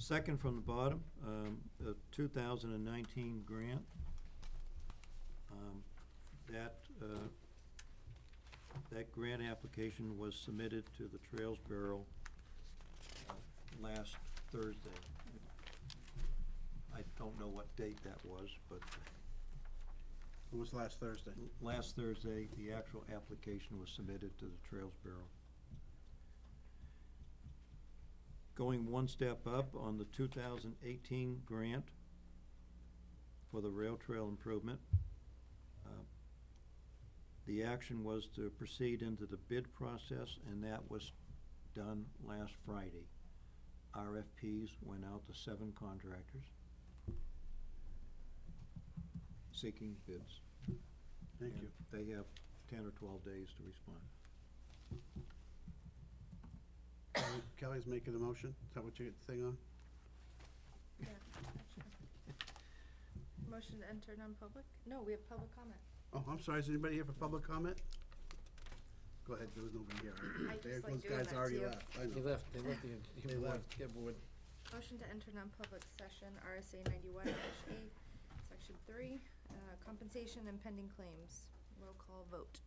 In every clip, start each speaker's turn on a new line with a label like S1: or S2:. S1: Second from the bottom, um, the two thousand and nineteen grant. Um, That, uh, that grant application was submitted to the Trails Bureau uh, last Thursday. I don't know what date that was, but
S2: It was last Thursday.
S1: last Thursday, the actual application was submitted to the Trails Bureau. Going one step up on the two thousand eighteen grant for the rail trail improvement. uh, The action was to proceed into the bid process, and that was done last Friday. RFPs went out to seven contractors seeking bids.
S2: Thank
S1: And
S2: you.
S1: They have ten or twelve days to respond.
S2: Kelly- Uh, Kelly's making a motion. Is that what you get the thing on?
S3: Motion to enter non-public? No, we have public comment.
S2: Oh, I'm sorry. Is anybody here for public comment? Go ahead. There was nobody here.
S3: I just
S2: There
S3: like
S2: those
S3: doing
S2: guys
S3: that to
S2: already
S3: you.
S2: left. I
S4: They
S2: know.
S4: left, they left the,
S2: They
S4: the board,
S2: left.
S4: the board.
S3: Motion to enter non-public session, RSA ninety-one dash A, section three, uh, compensation and pending claims. Roll call vote.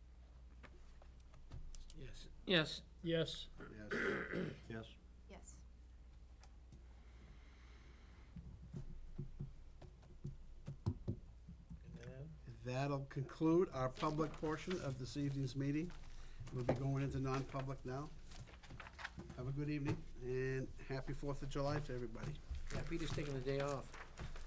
S4: Yes, yes. Yes.
S2: Yes.
S1: Yes?
S3: Yes.
S2: That'll conclude our public portion of this evening's meeting. We'll be going into non-public now. Have a good evening and happy Fourth of July to everybody.
S4: Yeah, Peter's taking the day off.